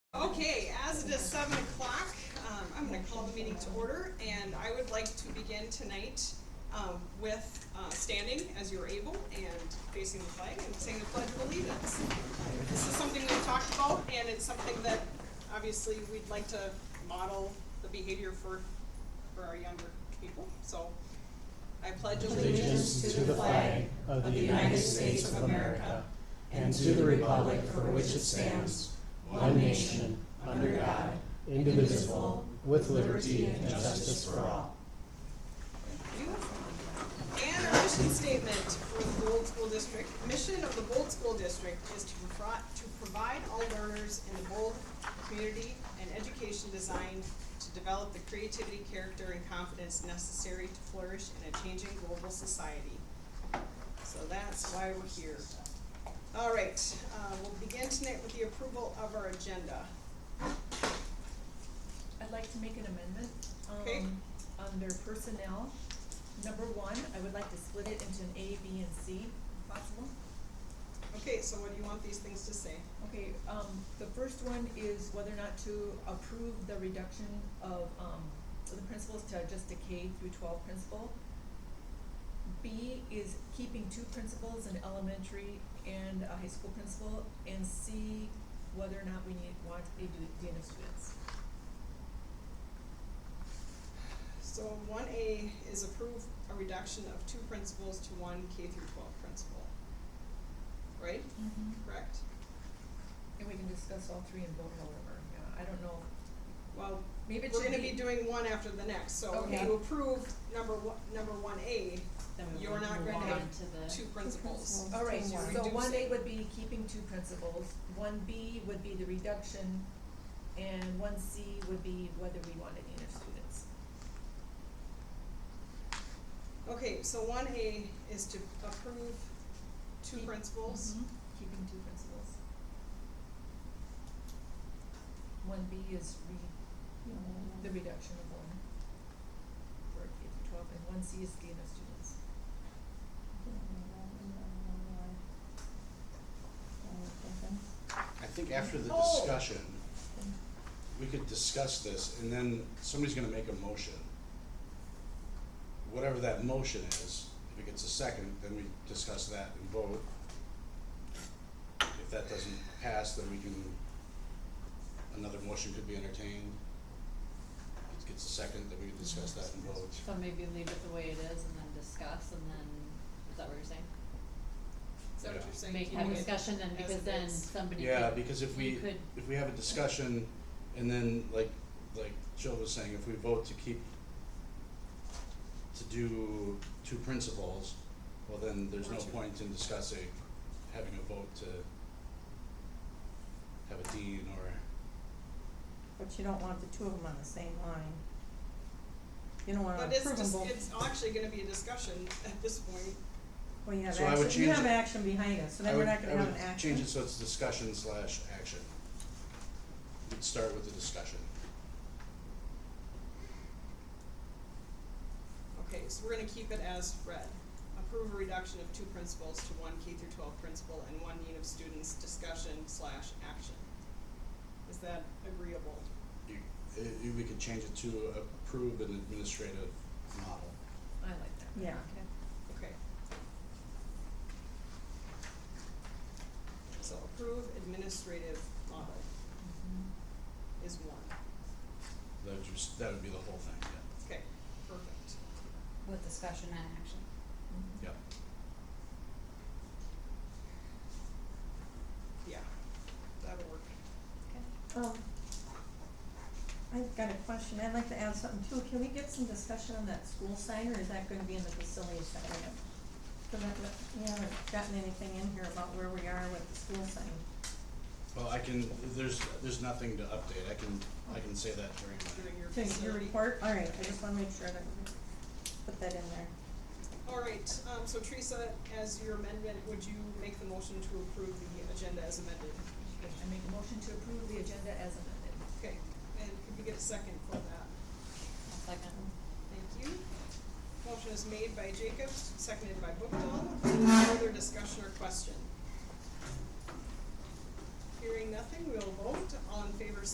Okay, as it is seven o'clock, um, I'm gonna call the meeting to order, and I would like to begin tonight, um, with, uh, standing as you're able and facing the flag and saying the pledge of allegiance. This is something we've talked about, and it's something that obviously we'd like to model the behavior for, for our younger people, so I pledge allegiance allegiance to the flag of the United States of America and to the republic for which it stands, one nation, under God, indivisible, with liberty and justice for all. And our mission statement for the Bold School District, mission of the Bold School District is to provide, to provide all learners in the Bold community an education designed to develop the creativity, character, and confidence necessary to flourish in a changing global society. So that's why we're here. All right, uh, we'll begin tonight with the approval of our agenda. I'd like to make an amendment, Okay. um, under personnel. Number one, I would like to split it into an A, B, and C, if possible. Okay, so what do you want these things to say? Okay, um, the first one is whether or not to approve the reduction of, um, of the principals to just a K through twelve principal. B is keeping two principals, an elementary and a high school principal, and C, whether or not we need, want a dean of students. So one A is approve a reduction of two principals to one K through twelve principal. Right? Correct? And we can discuss all three and vote however, yeah, I don't know, Well, maybe it we're should gonna be be, doing one after the next, so if Okay. you approve number one, number one A, Then we You're would not move gonna on have to the- two principals. all right, So so reduce one A it. would be keeping two principals, one B would be the reduction, and one C would be whether we want any of students. Okay, so one A is to approve two Keep- principals. Mhm, Keeping two principals. One B is re, the reduction of one for K through twelve, and one C is gain of students. I think after the Oh. discussion, we could discuss this, and then somebody's gonna make a motion. Whatever that motion is, if it gets a second, then we discuss that and vote. If that doesn't pass, then we can, another motion could be entertained. If it gets a second, then we can discuss that and vote. So maybe leave it the way it is and then discuss and then, is that what you're saying? Is that what Yeah. you're saying? Make Keeping have it discussion then as because it then is. somebody Yeah, could- because if you we, could- if we have a discussion, and then like, like Jill was saying, if we vote to keep, to do two principles, well then there's no Or two. point in discussing, having a vote to have a dean or, But you don't want the two of them on the same line. You don't want to But it's approve them just, both. it's actually gonna be a discussion at this point. Well, you have So I would action, you change have it. action behind us, so I then we're would, not gonna I have would an action. change it so it's discussion slash action. We'd start with the discussion. Okay, so we're gonna keep it as read. Approve a reduction of two principals to one K through twelve principal and one dean of students discussion slash action. Is that agreeable? You, i- i- we could change it to approve an administrative model. I like that. Yeah. Okay. Okay. So approve administrative model Mhm. is one. That would just, that would be the whole thing, yeah. Okay, perfect. With discussion and action. Mhm. Yep. Yeah, that'll work. Oh. Um, I've got a question, I'd like to add something too, can we get some discussion on that school sign, or is that gonna be in the facilities section? Cause I've, we haven't gotten anything in here about where we are with the school sign. Well, I can, there's, there's nothing to update, I can, I can say that during During your To your facility. report, alright, I just wanna make sure that we put that in there. All right, um, so Teresa, as your amendment, would you make the motion to approve the agenda as amended? Okay, I make a motion to approve the agenda as amended. Okay, and could we get a second for that? A second. Thank you. Motion is made by Jacobs, seconded by Bookdahl. Any further discussion or question? Hearing nothing, we'll vote. All in favor, say